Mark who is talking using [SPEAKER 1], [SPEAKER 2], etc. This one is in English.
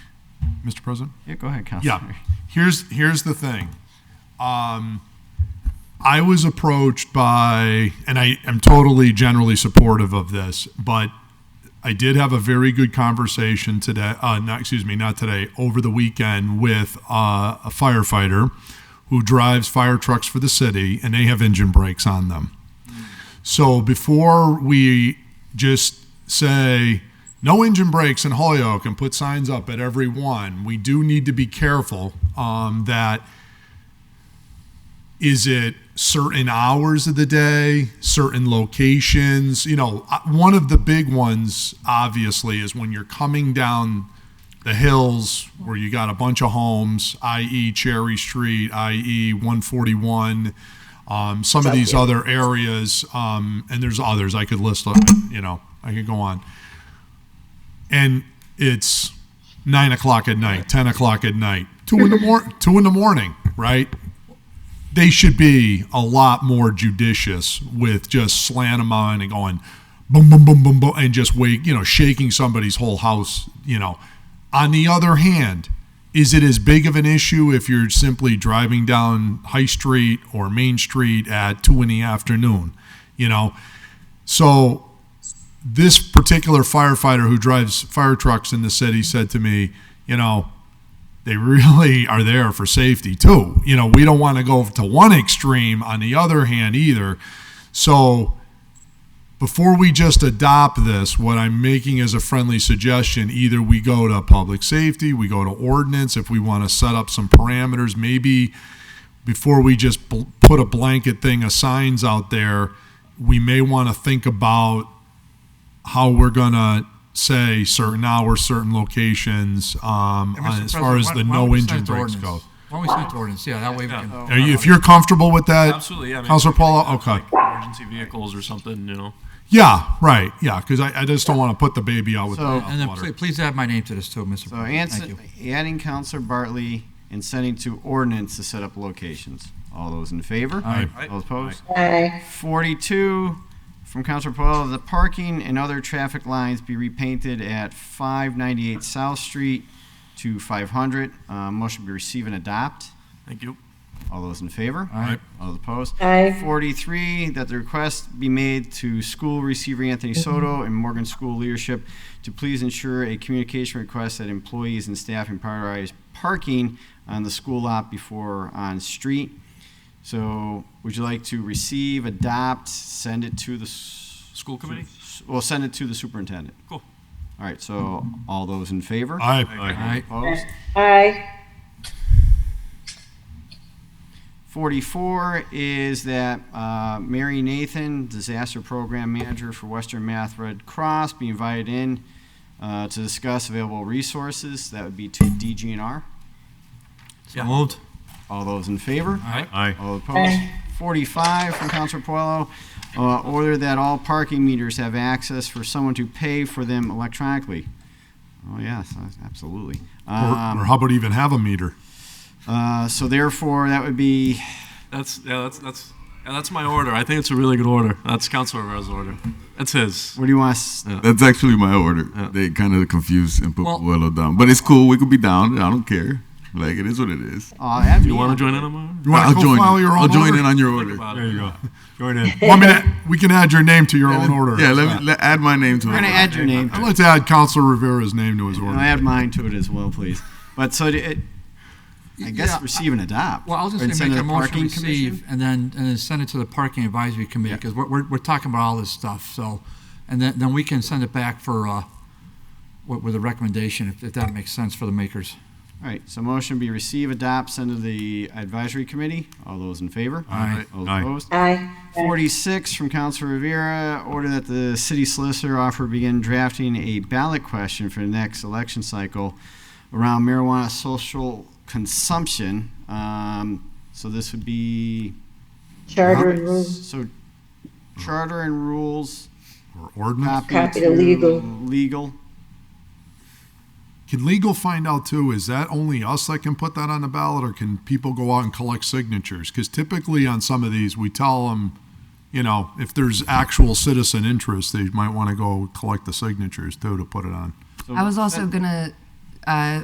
[SPEAKER 1] Mr. President?
[SPEAKER 2] Yeah, go ahead, Counselor.
[SPEAKER 1] Yeah. Here's, here's the thing. Um, I was approached by, and I am totally generally supportive of this, but I did have a very good conversation today, uh, not, excuse me, not today, over the weekend with uh, a firefighter who drives fire trucks for the city and they have engine brakes on them. So before we just say no engine brakes in Holyoke and put signs up at every one, we do need to be careful um, that is it certain hours of the day, certain locations? You know, uh, one of the big ones obviously is when you're coming down the hills where you got a bunch of homes, i.e., Cherry Street, i.e., 141. Um, some of these other areas, um, and there's others I could list. uh, You know, I could go on and it's nine o'clock at night, ten o'clock at night, two in the mor- two in the morning, right? They should be a lot more judicious with just slant 'em on and going boom, boom, boom, boom, boom, and just wake, you know, shaking somebody's whole house, you know. On the other hand, is it as big of an issue if you're simply driving down High Street or Main Street at two in the afternoon? You know, so this particular firefighter who drives fire trucks in the city said to me, you know, they really are there for safety too. You know, we don't want to go to one extreme on the other hand either. So before we just adopt this, what I'm making as a friendly suggestion, either we go to public safety, we go to ordinance if we want to set up some parameters, maybe before we just bl- put a blanket thing of signs out there, we may want to think about how we're gonna say certain hours, certain locations, um,
[SPEAKER 3] Hey, Mr.
[SPEAKER 1] as far as
[SPEAKER 3] President,
[SPEAKER 1] the
[SPEAKER 3] why- why don't
[SPEAKER 1] no
[SPEAKER 3] we
[SPEAKER 1] engine
[SPEAKER 3] send it to
[SPEAKER 1] brakes go.
[SPEAKER 3] ordinance? Why don't we send it to ordinance? Yeah, that way we
[SPEAKER 2] Oh,
[SPEAKER 3] can.
[SPEAKER 1] Are you, if you're comfortable with that?
[SPEAKER 4] Absolutely, yeah. I mean,
[SPEAKER 1] Counselor Paula,
[SPEAKER 4] like,
[SPEAKER 1] Oh, okay.
[SPEAKER 4] Emergency vehicles or something, you know.
[SPEAKER 1] Yeah, right, yeah, because I, I just don't want to put the baby out with the
[SPEAKER 2] So-
[SPEAKER 1] bathwater.
[SPEAKER 3] And then please, please add my name to this too, Mr.
[SPEAKER 2] So
[SPEAKER 3] President. Thank
[SPEAKER 2] ans-
[SPEAKER 3] you.
[SPEAKER 2] adding Counselor Bartley and sending to ordinance to set up locations. All those in favor?
[SPEAKER 1] Aye.
[SPEAKER 2] All opposed?
[SPEAKER 5] Aye.
[SPEAKER 2] 42 from Counselor Puelo, the parking and other traffic lines be repainted at 598 South Street to 500. Uh, Motion be receive and adopt.
[SPEAKER 4] Thank you.
[SPEAKER 2] All those in favor?
[SPEAKER 3] Aye.
[SPEAKER 2] All opposed?
[SPEAKER 5] Aye.
[SPEAKER 2] 43, that the request be made to school receiver Anthony Soto and Morgan School leadership to please ensure a communication request that employees and staff prioritize parking on the school lot before on street. So would you like to receive, adopt, send it to the? School
[SPEAKER 4] committee?
[SPEAKER 2] Well, send it to the superintendent.
[SPEAKER 4] Cool.
[SPEAKER 2] All right, so all those in favor?
[SPEAKER 1] Aye.
[SPEAKER 3] Aye.
[SPEAKER 2] Opposed?
[SPEAKER 5] Aye.
[SPEAKER 2] 44 is that uh, Mary Nathan, Disaster Program Manager for Western Math Red Cross, be invited in uh, to discuss available resources. That would be to DGNR.
[SPEAKER 3] So moved.
[SPEAKER 2] All those in favor?
[SPEAKER 3] Aye.
[SPEAKER 1] Aye.
[SPEAKER 2] All opposed? 45 from Counselor Puelo, uh, order that all parking meters have access for someone to pay for them electronically. Oh, yes, absolutely. Um,
[SPEAKER 1] Or, or how about even have a meter?
[SPEAKER 2] uh, So therefore, that would be
[SPEAKER 4] That's yeah. That's that's yeah, that's my order. I think it's a really good order. That's Councilor Rivera's order. That's his.
[SPEAKER 2] What do you want us?
[SPEAKER 6] That's actually my order. They kind of confused and put
[SPEAKER 4] Well-
[SPEAKER 6] Puello down, but it's cool. We could be down. I don't care. Like it is what it is.
[SPEAKER 2] Aw, that'd
[SPEAKER 4] You
[SPEAKER 2] be-
[SPEAKER 4] want to join in on my order?
[SPEAKER 1] You wanna
[SPEAKER 6] I'll
[SPEAKER 1] go
[SPEAKER 6] join.
[SPEAKER 1] file
[SPEAKER 6] in.
[SPEAKER 1] your
[SPEAKER 6] I'll
[SPEAKER 1] own
[SPEAKER 6] join
[SPEAKER 1] order?
[SPEAKER 6] in on your
[SPEAKER 4] Think
[SPEAKER 6] order.
[SPEAKER 4] about
[SPEAKER 1] There you
[SPEAKER 4] it.
[SPEAKER 1] go. Join in. Well, I mean, uh, we can add your name to your own order.
[SPEAKER 6] Yeah, let me let, add my name to it.
[SPEAKER 2] We're gonna add your name.
[SPEAKER 1] I'd like to add Counselor Rivera's name to his
[SPEAKER 2] And I'll
[SPEAKER 1] order.
[SPEAKER 2] add mine to it as well, please. But so it, I guess
[SPEAKER 3] Yeah,
[SPEAKER 2] receive and adopt.
[SPEAKER 3] Well, I'll just
[SPEAKER 2] Or
[SPEAKER 3] say
[SPEAKER 2] send
[SPEAKER 3] make
[SPEAKER 2] to the
[SPEAKER 3] a motion to
[SPEAKER 2] parking commission.
[SPEAKER 3] receive and then, and then send it to the parking advisory committee because we're, we're, we're talking about all this stuff, so. And then, then we can send it back for, uh, with, with a recommendation if, if that makes sense for the makers.
[SPEAKER 2] All right, so motion be receive, adopt, send to the advisory committee. All those in favor?
[SPEAKER 3] Aye.
[SPEAKER 2] All
[SPEAKER 1] Aye.
[SPEAKER 2] opposed?
[SPEAKER 5] Aye.
[SPEAKER 2] 46 from Councilor Rivera, order that the city solicitor offer begin drafting a ballot question for the next election cycle around marijuana social consumption. Um, So this would be,
[SPEAKER 5] Charter and rules.
[SPEAKER 2] so charter and rules,
[SPEAKER 1] Or ordinance?
[SPEAKER 2] copy
[SPEAKER 5] Copy to
[SPEAKER 2] to
[SPEAKER 5] legal.
[SPEAKER 2] Legal.
[SPEAKER 6] uh,
[SPEAKER 1] Can legal find out too, is that only us that can put that on the ballot or can people go out and collect signatures? Because typically on some of these, we tell them, you know, if there's actual citizen interest, they might want to go collect the signatures too to put it on.
[SPEAKER 2] So-
[SPEAKER 7] I was also going to uh,